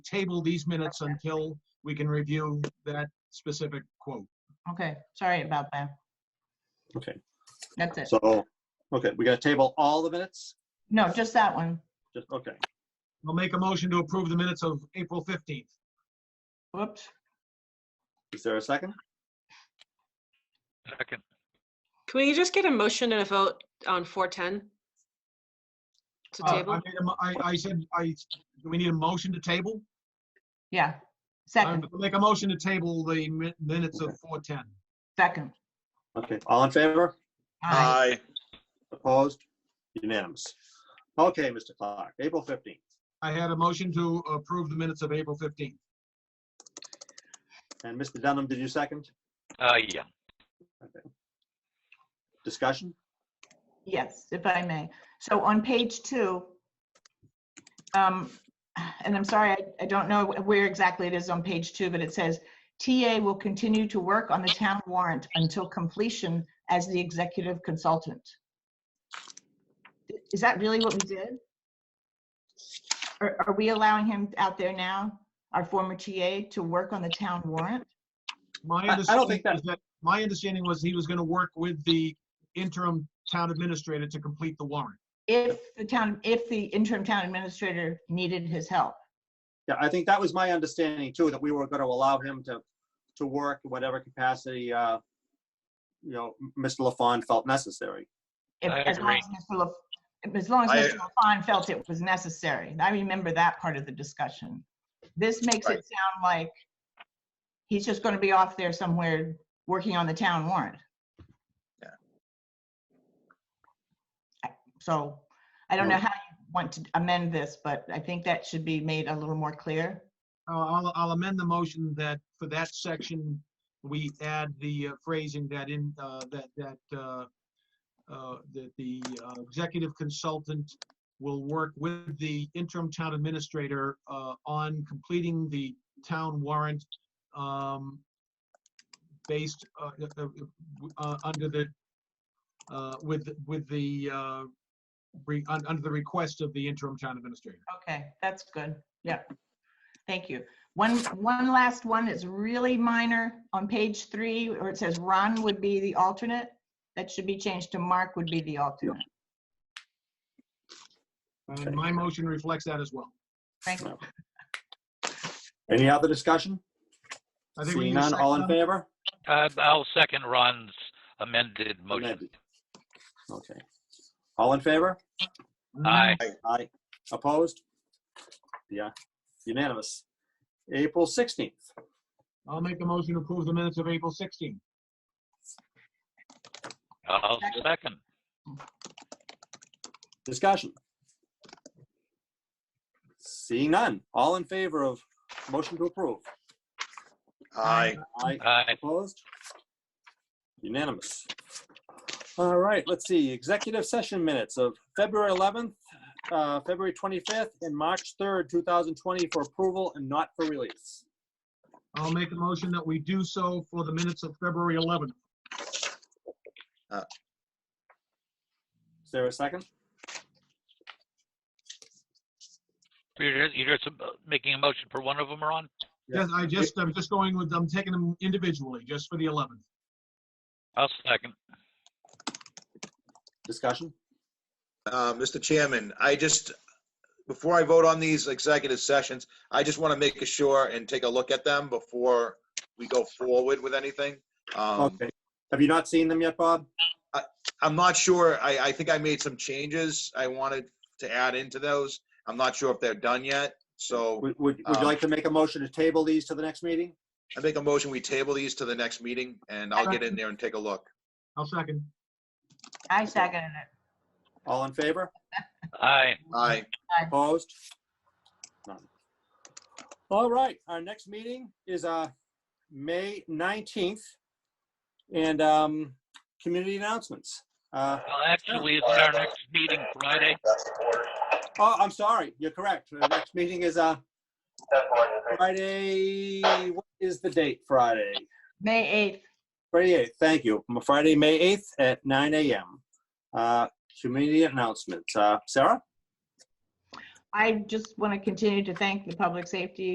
table these minutes until we can review that specific quote. Okay, sorry about that. Okay, That's it. so, okay, we got to table all the minutes? No, just that one. Just, okay, I'll make a motion to approve the minutes of April 15th. Whoops. is there a second? Second, Can we just get a motion and a vote on 410? To Uh, I table? made a mo- I, I said, I, do we need a motion to table? Yeah. I'll Second, Make a motion to table the mi- minutes of 4:10. second. Okay, all in favor? Aye. Opposed? Unanimous. Okay, Mr. Clark, April 15th. I had a motion to approve the minutes of April 15th. And Mr. Dunham, did you second? uh, yeah, Discussion? Yes, if I may. So on page two, um, and I'm sorry, I- I don't know where exactly it is on page two, but it says, TA will continue to work on the town warrant until completion as the executive consultant. Is that really what we did? Are, are we allowing him out there now, our former TA, to work on the town warrant? My I- I don't understanding think that- is that, my understanding was he was going to work with the interim town administrator to complete the warrant. If the town, if the interim town administrator needed his help? Yeah, I think that was my understanding too, that we were going to allow him to, to work in whatever capacity, uh, you know, M- Mr. LaFawn felt necessary. if- I as long agree. as Mr. La- if- As long as I- Mr. LaFawn felt it was necessary. I remember that part of the discussion. This makes it Right. sound like he's just going to be off there somewhere working on the town warrant. Yeah. I- So I don't know how you want to amend this, but I think that should be made a little more clear. Uh, I'll, I'll amend the motion that for that section, we add the uh, phrasing that in, uh, that, that, uh, uh, that the uh, executive consultant will work with the interim town administrator uh, on completing the town warrant um, based uh, uh, uh, under the, uh, with, with the, uh, re- un- under the request of the interim town administrator. Okay, that's good. Yeah. Thank you. One, one last one is really minor on page three, where it says Ron would be the alternate. That should be changed to Mark would be the alternate. Uh, My motion reflects that as well. Thank you. Any other discussion? I think we Seeing need a none, all in second. favor? Uh, I'll second Ron's amended motion. Amended. Okay. All in favor? Mm-hmm. Aye, Aye. Opposed? Yeah, unanimous. April 16th. I'll make a motion to approve the minutes of April 16th. I'll Second. second. Discussion. Seeing none. All in favor of motion to approve? Aye. Aye. Aye, Opposed? Unanimous. All right, let's see. Executive session minutes of February 11th, uh, February 25th, and March 3rd, 2020 for approval and not for release. I'll make a motion that we do so for the minutes of February 11th. Is there a second? you're, just- you're just uh, making a motion for one of them, Ron? Yeah. Yes, I just, I'm just going with, I'm taking them individually, just for the 11th. I'll second. Discussion? Uh, Mr. Chairman, I just, before I vote on these executive sessions, I just want to make sure and take a look at them before we go forward with anything. Um, Okay. Have you not seen them yet, Bob? I'm not sure, I, I think I made some changes I wanted to add into those. I'm not sure if they're done yet, so Would, would would you Um, like to make a motion to table these to the next meeting? I make a motion, we table these to the next meeting, and I'll get in there and take a look. I'll second. I seconded it. All in favor? Aye, Aye, Opposed? None. All right, our next meeting is uh, May 19th. And um, community announcements. Uh, well, actually, isn't our next meeting Friday? Oh, I'm sorry, you're correct. The next meeting is uh, Friday, what is the date? Friday? May 8th. Friday 8th, thank you. M- Friday, May 8th at 9 AM. Uh, Community announcements. Uh, Sarah? I just want to continue to thank the Public Safety